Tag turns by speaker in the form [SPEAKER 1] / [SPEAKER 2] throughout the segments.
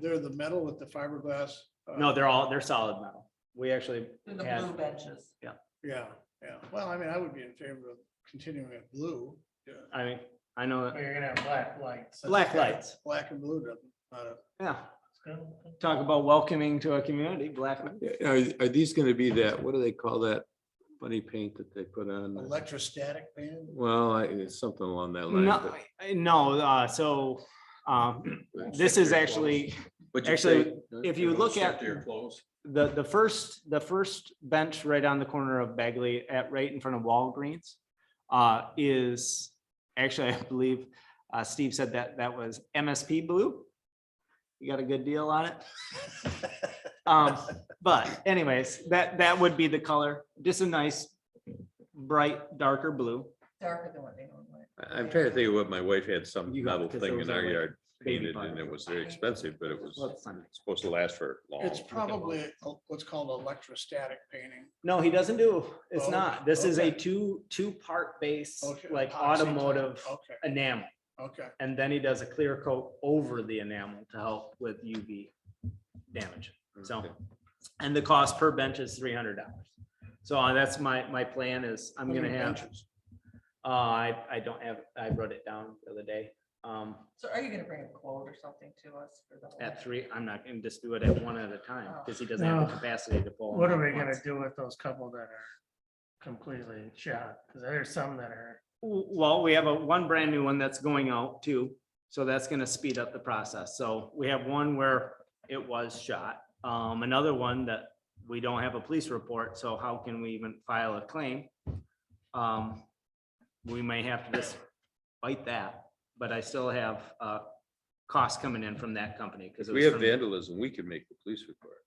[SPEAKER 1] they're the metal with the fiberglass. uh,
[SPEAKER 2] No, they're all, they're solid metal. We actually
[SPEAKER 3] in the
[SPEAKER 2] had,
[SPEAKER 3] blue benches.
[SPEAKER 1] Yeah, yeah. Well, I mean, I would be in favor of continuing at blue. Yeah,
[SPEAKER 2] I mean, I know,
[SPEAKER 4] But you're gonna have black lights.
[SPEAKER 2] black lights,
[SPEAKER 1] Black and blue doesn't, not a-
[SPEAKER 2] yeah.
[SPEAKER 4] Well,
[SPEAKER 2] Talk about welcoming to a community, black.
[SPEAKER 5] Are, are these gonna be that, what do they call that funny paint that they put on?
[SPEAKER 1] electrostatic band.
[SPEAKER 5] Well, I- it's something along that line.
[SPEAKER 2] No, I- no, uh, so, um, this is actually,
[SPEAKER 6] But
[SPEAKER 2] actually, if you look at-
[SPEAKER 6] Your clothes.
[SPEAKER 2] the, the first, the first bench right on the corner of Bagley at, right in front of Walgreens. Uh, is, actually, I believe, uh, Steve said that that was MSP blue. You got a good deal on it. Um, but anyways, that, that would be the color, just a nice bright darker blue.
[SPEAKER 3] Darker than what they normally.
[SPEAKER 5] I- I'm trying to think of what my wife had some
[SPEAKER 2] You got-
[SPEAKER 5] metal
[SPEAKER 2] 'cause
[SPEAKER 5] thing
[SPEAKER 2] those
[SPEAKER 5] in
[SPEAKER 2] are
[SPEAKER 5] our
[SPEAKER 2] like
[SPEAKER 5] yard
[SPEAKER 2] baby
[SPEAKER 5] painted and
[SPEAKER 2] bars.
[SPEAKER 5] it was very expensive, but it
[SPEAKER 2] Well,
[SPEAKER 5] was
[SPEAKER 2] it's not-
[SPEAKER 5] supposed to last for long.
[SPEAKER 1] It's probably a- what's called electrostatic painting.
[SPEAKER 2] No, he doesn't do, it's
[SPEAKER 1] Oh,
[SPEAKER 2] not. This is a
[SPEAKER 1] okay.
[SPEAKER 2] two, two-part base,
[SPEAKER 1] Okay,
[SPEAKER 2] like
[SPEAKER 1] epoxy type. Oh.
[SPEAKER 2] automotive
[SPEAKER 1] Okay,
[SPEAKER 2] enamel.
[SPEAKER 1] okay.
[SPEAKER 2] And then he does a clear coat over the enamel to help with UV damage. So,
[SPEAKER 5] Okay.
[SPEAKER 2] and the cost per bench is three hundred dollars. So uh, that's my, my plan is I'm
[SPEAKER 1] How
[SPEAKER 2] gonna
[SPEAKER 1] many
[SPEAKER 2] have,
[SPEAKER 1] benches?
[SPEAKER 2] uh, I, I don't have, I wrote it down the other day. Um,
[SPEAKER 3] So are you gonna bring a quote or something to us for the? whole-
[SPEAKER 2] at three, I'm not gonna just do it at one at a time
[SPEAKER 1] Oh.
[SPEAKER 2] because he doesn't have the
[SPEAKER 4] No.
[SPEAKER 2] capacity to pull. them
[SPEAKER 4] What are
[SPEAKER 2] all
[SPEAKER 4] we
[SPEAKER 2] at
[SPEAKER 4] gonna
[SPEAKER 2] once.
[SPEAKER 4] do with those couple that are completely shot? Cause there's some that are,
[SPEAKER 2] Well, we have a one brand new one that's going out too, so that's gonna speed up the process. So we have one where it was shot. Um, another one that we don't have a police report, so how can we even file a claim? Um, we may have to just fight that, but I still have, uh, costs coming in from that company.
[SPEAKER 5] If
[SPEAKER 2] because
[SPEAKER 5] we have vandalism, we can make the police report.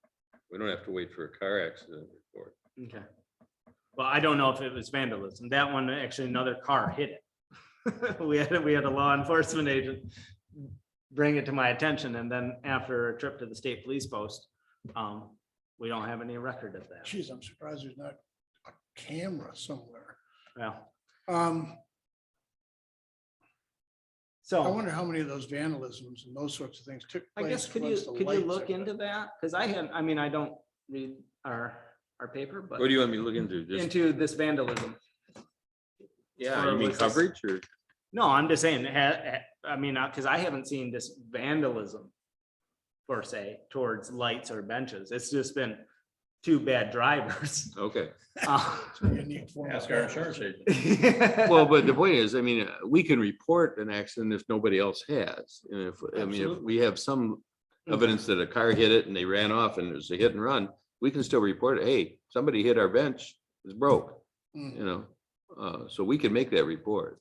[SPEAKER 5] We don't have to wait for a car accident report.
[SPEAKER 2] Okay. Well, I don't know if it was vandalism. That one, actually, another car hit it. We had, we had a law enforcement agent bring it to my attention, and then after a trip to the state police post, um, we don't have any record of that.
[SPEAKER 1] Geez, I'm surprised there's not a camera somewhere.
[SPEAKER 2] Well,
[SPEAKER 1] Um, I
[SPEAKER 2] so
[SPEAKER 1] wonder how many of those vandalisms and those sorts of things took
[SPEAKER 2] I
[SPEAKER 1] place.
[SPEAKER 2] guess could you,
[SPEAKER 1] once the
[SPEAKER 2] could you
[SPEAKER 1] lights
[SPEAKER 2] look
[SPEAKER 1] had been-
[SPEAKER 2] into that? Because I had, I mean, I don't read our, our paper, but
[SPEAKER 5] What do you want me to look into? Just,
[SPEAKER 2] into this vandalism.
[SPEAKER 5] yeah,
[SPEAKER 2] or
[SPEAKER 5] you mean
[SPEAKER 2] was this-
[SPEAKER 5] coverage or?
[SPEAKER 2] No, I'm just saying, it ha- ha- I mean, because I haven't seen this vandalism per se towards lights or benches. It's just been two bad drivers.
[SPEAKER 5] Okay.
[SPEAKER 2] Uh,
[SPEAKER 1] Unique form of
[SPEAKER 6] Ask our
[SPEAKER 1] vandalism.
[SPEAKER 6] insurance agent.
[SPEAKER 5] Well, but the point is, I mean, uh, we can report an accident if nobody else has. And if, I mean, if
[SPEAKER 2] Absolutely. Mm.
[SPEAKER 5] we have some evidence that a car hit it and they ran off and it was a hit and run, we can still report, it. hey, somebody hit our bench, it's broke,
[SPEAKER 1] Mm.
[SPEAKER 5] you know? Uh, so we can make that report.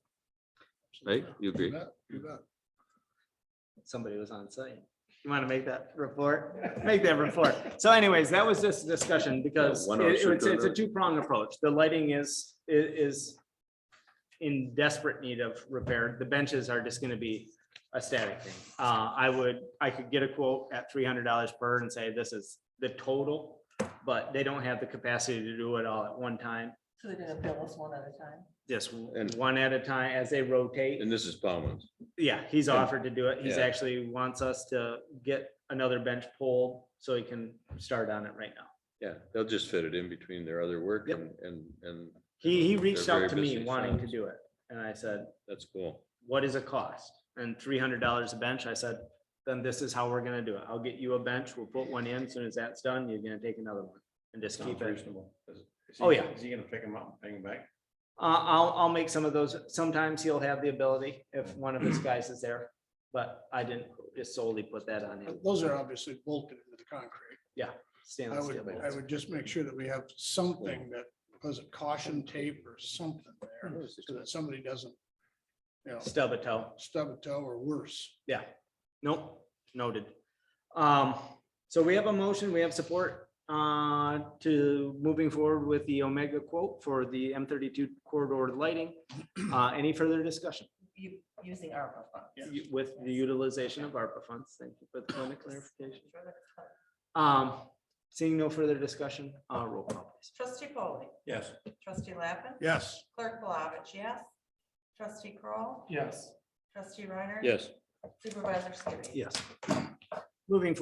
[SPEAKER 5] Right? You agree?
[SPEAKER 1] bet, you bet.
[SPEAKER 2] Somebody was on site. You want to make that report? Make that report. So anyways, that was just a discussion because
[SPEAKER 5] Yeah, one
[SPEAKER 2] it-
[SPEAKER 5] officer
[SPEAKER 2] it's,
[SPEAKER 5] to
[SPEAKER 2] it's a
[SPEAKER 5] another.
[SPEAKER 2] two-pronged approach. The lighting is, i- is in desperate need of repair. The benches are just gonna be a static thing. Uh, I would, I could get a quote at three hundred dollars per and say this is the total, but they don't have the capacity to do it all at one time,
[SPEAKER 3] So they're gonna bill us one at a time?
[SPEAKER 2] just
[SPEAKER 5] And-
[SPEAKER 2] one at a time as they rotate.
[SPEAKER 5] And this is Palmer's.
[SPEAKER 2] Yeah, he's
[SPEAKER 5] Yeah.
[SPEAKER 2] offered to do it. He's
[SPEAKER 5] Yeah.
[SPEAKER 2] actually wants us to get another bench pulled so he can start on it right now.
[SPEAKER 5] Yeah, they'll just fit it in between their other work
[SPEAKER 2] Yep.
[SPEAKER 5] and, and, and
[SPEAKER 2] He, he
[SPEAKER 5] They're
[SPEAKER 2] reached
[SPEAKER 5] very
[SPEAKER 2] out to me
[SPEAKER 5] busy,
[SPEAKER 2] wanting
[SPEAKER 5] so-
[SPEAKER 2] to do it and I said,
[SPEAKER 5] that's cool.
[SPEAKER 2] what is it cost? And three hundred dollars a bench. I said, then this is how we're gonna do it. I'll get you a bench. We'll put one in. As Soon as that's done, you're gonna take another one and just keep
[SPEAKER 6] Sounds
[SPEAKER 2] it.
[SPEAKER 6] reasonable. Is- is
[SPEAKER 2] Oh,
[SPEAKER 6] he-
[SPEAKER 2] yeah.
[SPEAKER 6] Is he gonna pick them up and bring them back?
[SPEAKER 2] Uh, I'll, I'll make some of those. Sometimes he'll have the ability if one of his guys is there, but I didn't just solely put that on him.
[SPEAKER 1] But Those are obviously bolted into the concrete. I
[SPEAKER 2] Stainless
[SPEAKER 1] would,
[SPEAKER 2] steel bolts.
[SPEAKER 1] I would just make sure that we have something that, was it caution tape or something there, so that somebody doesn't, you know,
[SPEAKER 2] Stub a toe.
[SPEAKER 1] stub a toe or worse.
[SPEAKER 2] Yeah, nope, noted. Um, so we have a motion, we have support uh to moving forward with the Omega quote for the M thirty-two corridor lighting. Uh, any further discussion
[SPEAKER 3] You, using ARPA funds?
[SPEAKER 2] with the utilization of ARPA funds? Thank you for the point of clarification.
[SPEAKER 3] Sure that it's fun.
[SPEAKER 2] Um, seeing no further discussion, uh, roll call please.
[SPEAKER 3] Trustee Foley,
[SPEAKER 6] Yes.
[SPEAKER 3] trustee Lappin,
[SPEAKER 1] Yes,
[SPEAKER 3] clerk Palovich, yes. Trustee Kroll,
[SPEAKER 4] yes.
[SPEAKER 3] trustee Reiner.
[SPEAKER 5] Yes.
[SPEAKER 3] Supervisor Skibby.
[SPEAKER 2] Yes. Moving forward.